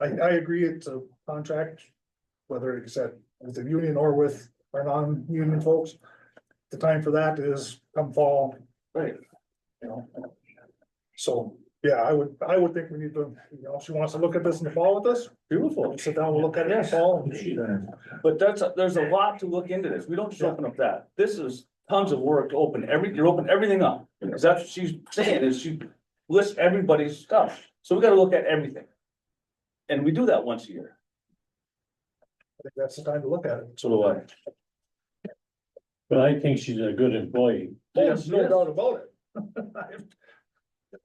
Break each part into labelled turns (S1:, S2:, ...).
S1: I, I agree it's a contract, whether it's at, with the union or with our non-union folks. The time for that is come fall.
S2: Right.
S1: You know? So, yeah, I would, I would think we need to, you know, if she wants to look at this in the fall with us,
S2: Beautiful,
S1: we'll sit down, we'll look at it in the
S2: Yes.
S1: fall. and-
S2: but that's, there's a lot to look into this. We don't just open up that. This is tons of work to open every, you're opening everything up. Cause that's what she's saying is she lists everybody's stuff. So we gotta look at everything. And we do that once a year.
S1: I think that's the time to look at it.
S2: So do I.
S3: But I think she's a good employee.
S2: Yes,
S1: No
S2: yes.
S1: doubt about it.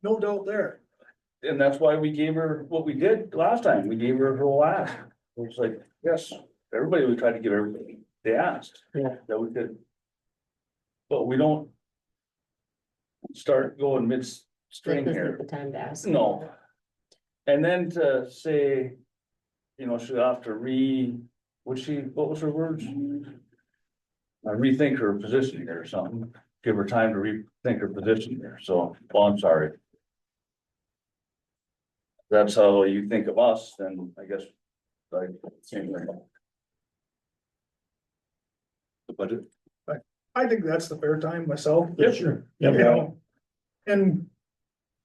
S1: No doubt there.
S2: And that's why we gave her what we did last time. We gave her her last. It was like, yes, everybody, we tried to give everybody they asked.
S3: Yeah.
S2: That we could. But we don't. Start going midstream
S4: This
S2: here.
S4: is the time to ask.
S2: No. And then to say, you know, she'll have to re, what she, what was her words? Uh, Rethink her position here or something, give her time to rethink her position there, so, well, I'm sorry. That's how you think of us, then I guess, like, same thing. The budget,
S1: I think that's the fair time myself.
S2: Yeah,
S1: sure. You
S3: Yeah,
S1: know? And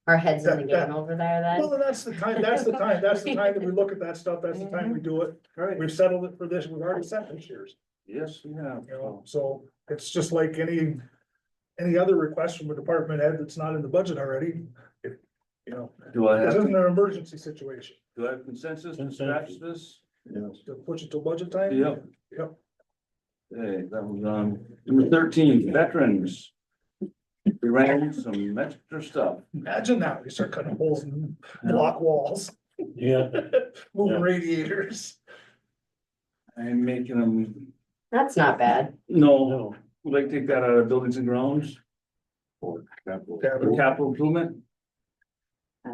S4: Our heads in the
S1: That- that-
S4: game over there then.
S1: Well, that's the time, that's the time, that's the time that we look at that stuff, that's the time we do it,
S2: right,
S1: we've settled it for this, we've already set this year's,
S2: yes, yeah,
S1: you know, so it's just like any. Any other request from a department head that's not in the budget already, if, you know,
S2: do I
S1: this
S2: have,
S1: isn't an emergency situation,
S2: do I have consensus to scratch this?
S1: to push it till budget time.
S2: Yep.
S1: Yep.
S2: Hey, that was on number thirteen, veterans. We ran some extra stuff.
S1: Imagine that, we start cutting holes and block walls,
S3: Yeah,
S1: moving
S3: Yeah.
S1: radiators,
S2: I'm making them,
S4: That's not bad.
S2: no,
S3: no,
S2: would like to take that out of buildings and grounds. Or capital. or Capital improvement,
S5: I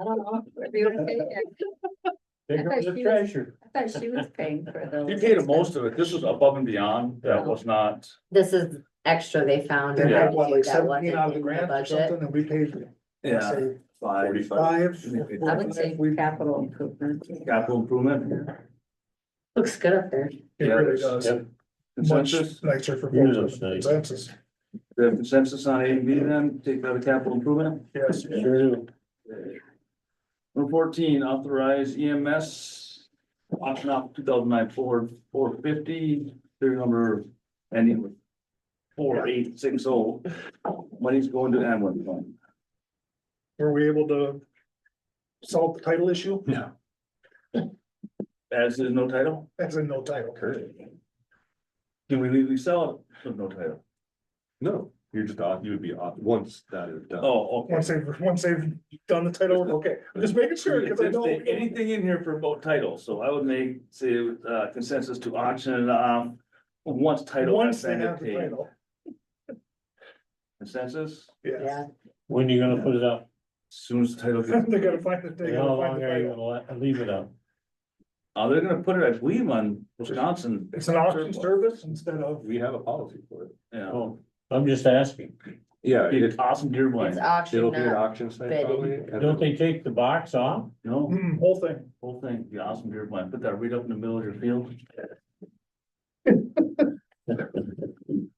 S5: don't know, are you okay?
S3: they go to the treasure.
S5: I thought she was paying for those.
S2: you paid most of it, this was above and beyond, that was not,
S4: This is extra they found.
S1: they
S4: and
S1: had
S4: had
S1: what,
S4: to do
S1: like
S4: that
S1: seventeen
S4: wasn't
S1: out of the
S4: in
S1: grant or
S4: budget.
S1: something, and we paid,
S2: yeah.
S1: say,
S2: Five.
S1: five.
S5: I would say
S1: We-
S5: capital improvement.
S2: Capital improvement,
S4: Looks good up there.
S1: It really does,
S3: Yep.
S1: much
S2: consensus,
S1: nicer for
S3: It is
S1: folks,
S3: nice.
S1: consensus,
S2: Do you have consensus on A and B then, take that out of capital improvement?
S1: yes.
S3: Sure do.
S2: Number fourteen, authorize E EMS auction off two thousand nine Ford four fifty, serial number ending with four eight six oh. Money's going to ambulance fund.
S1: Were we able to solve the title issue?
S2: As is no title?
S1: That's in no title.
S2: Can we legally sell it with no title?
S6: No, you're just, off- you would be off, once that is done.
S2: Oh, okay.
S1: Once they've, once they've done the title, okay, I'm just making sure, because I
S2: If
S1: know.
S2: there's Anything in here for about title, so I would make, say, uh, consensus to auction, um, once title.
S1: Once
S2: has
S1: they
S2: been
S1: have the
S2: obtained.
S1: title,
S2: Consensus,
S1: yeah.
S4: Yeah.
S3: When you gonna put it up?
S2: soon as the title gets
S1: They gotta find the, they
S3: How
S1: gotta find
S3: long
S1: the
S3: are you
S1: title.
S3: gonna let- leave it up?
S2: Uh, they're gonna put it, I believe, on Wisconsin,
S1: It's an auction service instead of,
S6: We have a policy for it.
S2: yeah.
S3: Oh, I'm just asking.
S6: Yeah,
S2: Be an awesome deer
S4: It's
S2: blind,
S6: it'll
S4: auction
S6: be an
S4: up.
S6: auction site
S4: bidding.
S6: probably. and then-
S3: Don't they take the box off?
S2: you know,
S1: mm, whole thing.
S2: whole thing, the awesome deer blind, put that right up in the middle of your field.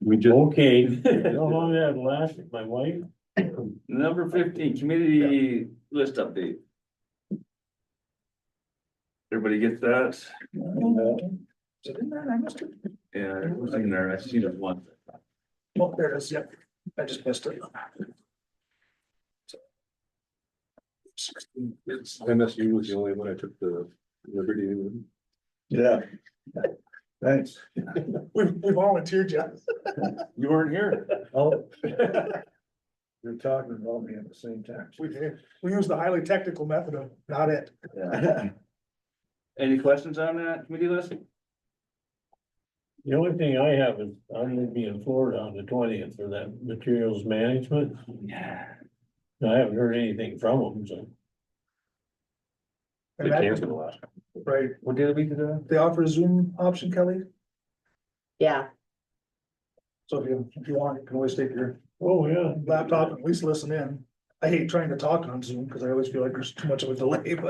S6: We just,
S3: Okay, you know how long that lasted, my wife?
S2: Number fifteen, community list update. Everybody gets that?
S1: Is it in there? I missed it.
S2: Yeah, it was in there, I've seen it once.
S1: Oh, there it is, yep, I just missed it.
S2: It's-
S6: MSU was the only one I took the liberty with.
S3: Yeah. Thanks.
S1: We, we volunteered you.
S2: You weren't here.
S3: Oh. You're talking about me at the same time.
S1: We, did. we used the highly technical method of not it.
S2: Any questions on that committee list?
S3: The only thing I have is, I'm gonna be in Florida on the twentieth for that materials management.
S2: Yeah.
S3: I haven't heard anything from them, so.
S6: They
S1: And that-
S6: canceled last.
S1: Right,
S2: What did we do? that?
S1: they offer a Zoom option, Kelly,
S4: Yeah.
S1: so if you, if you want, you can always take your
S3: Oh, yeah.
S1: laptop and at least listen in. I hate trying to talk on Zoom because I always feel like there's too much of a delay, but.